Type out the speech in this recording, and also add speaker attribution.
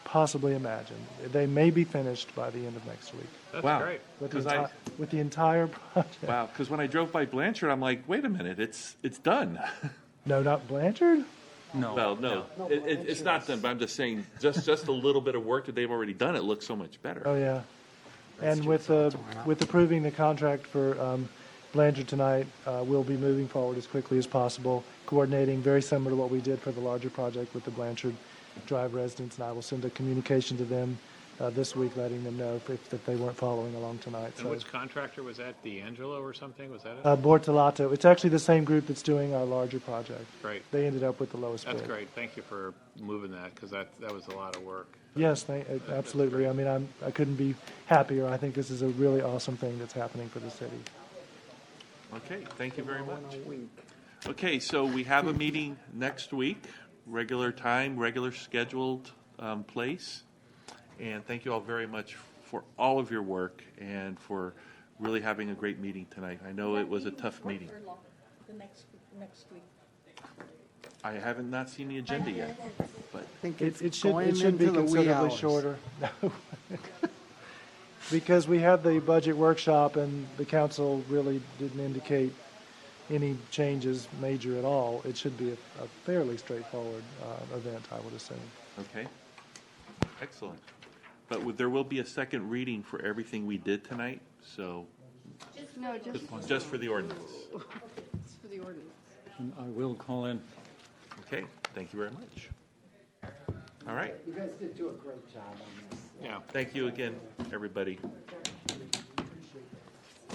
Speaker 1: possibly imagine. They may be finished by the end of next week.
Speaker 2: That's
Speaker 3: Wow.
Speaker 2: great.
Speaker 1: With the,
Speaker 3: 'Cause I-
Speaker 1: enti- with the entire project.
Speaker 3: Wow, because when I drove by Blanchard, I'm like, wait a minute, it's it's done.
Speaker 1: No, not Blanchard?
Speaker 3: well, no, it, it, it's not done. But I'm just saying, just just a little bit of work that they've already done, it looks so much better.
Speaker 1: Oh, yeah. And with, the with approving the contract for um, Blanchard tonight, uh, we'll be moving forward as quickly as possible, coordinating very similar to what we did for the larger project with the Blanchard Drive residents. And I will send a communication to them uh, this week, letting them know if- if, that they weren't following along tonight.
Speaker 2: And
Speaker 1: So,
Speaker 2: which contractor was that? D'Angelo or something? Was that it?
Speaker 1: uh, Bortolato, it's actually the same group that's doing our larger project.
Speaker 2: Great.
Speaker 1: They ended up with the lowest bid.
Speaker 2: That's great. Thank you for moving that because that, that was a lot of work.
Speaker 1: Yes, thank- uh, absolutely. I mean, I'm, I couldn't be happier. I think this is a really awesome thing that's happening for the city.
Speaker 3: Okay, thank you very much. Okay, so we have a meeting next week, regular time, regular scheduled um, place. And thank you all very much for all of your work and for really having a great meeting tonight. I know it was a tough meeting.
Speaker 4: Or long, The next, next week.
Speaker 3: I haven't not seen the agenda yet, but
Speaker 5: think
Speaker 1: It, it
Speaker 5: it's
Speaker 1: should,
Speaker 5: going
Speaker 1: it should be
Speaker 5: into the wee
Speaker 1: considerably
Speaker 5: hours.
Speaker 1: shorter. Because we had the budget workshop and the council really didn't indicate any changes major at all. It should be a a fairly straightforward uh, event, I would assume.
Speaker 3: Okay. Excellent. But w- there will be a second reading for everything we did tonight, so
Speaker 6: No, just
Speaker 3: just for the ordinance.
Speaker 6: for the ordinance.
Speaker 7: And I will call in.
Speaker 3: Okay, thank you very much. All right,
Speaker 5: You guys did do a great job on this.
Speaker 2: Yeah.
Speaker 3: thank you again, everybody.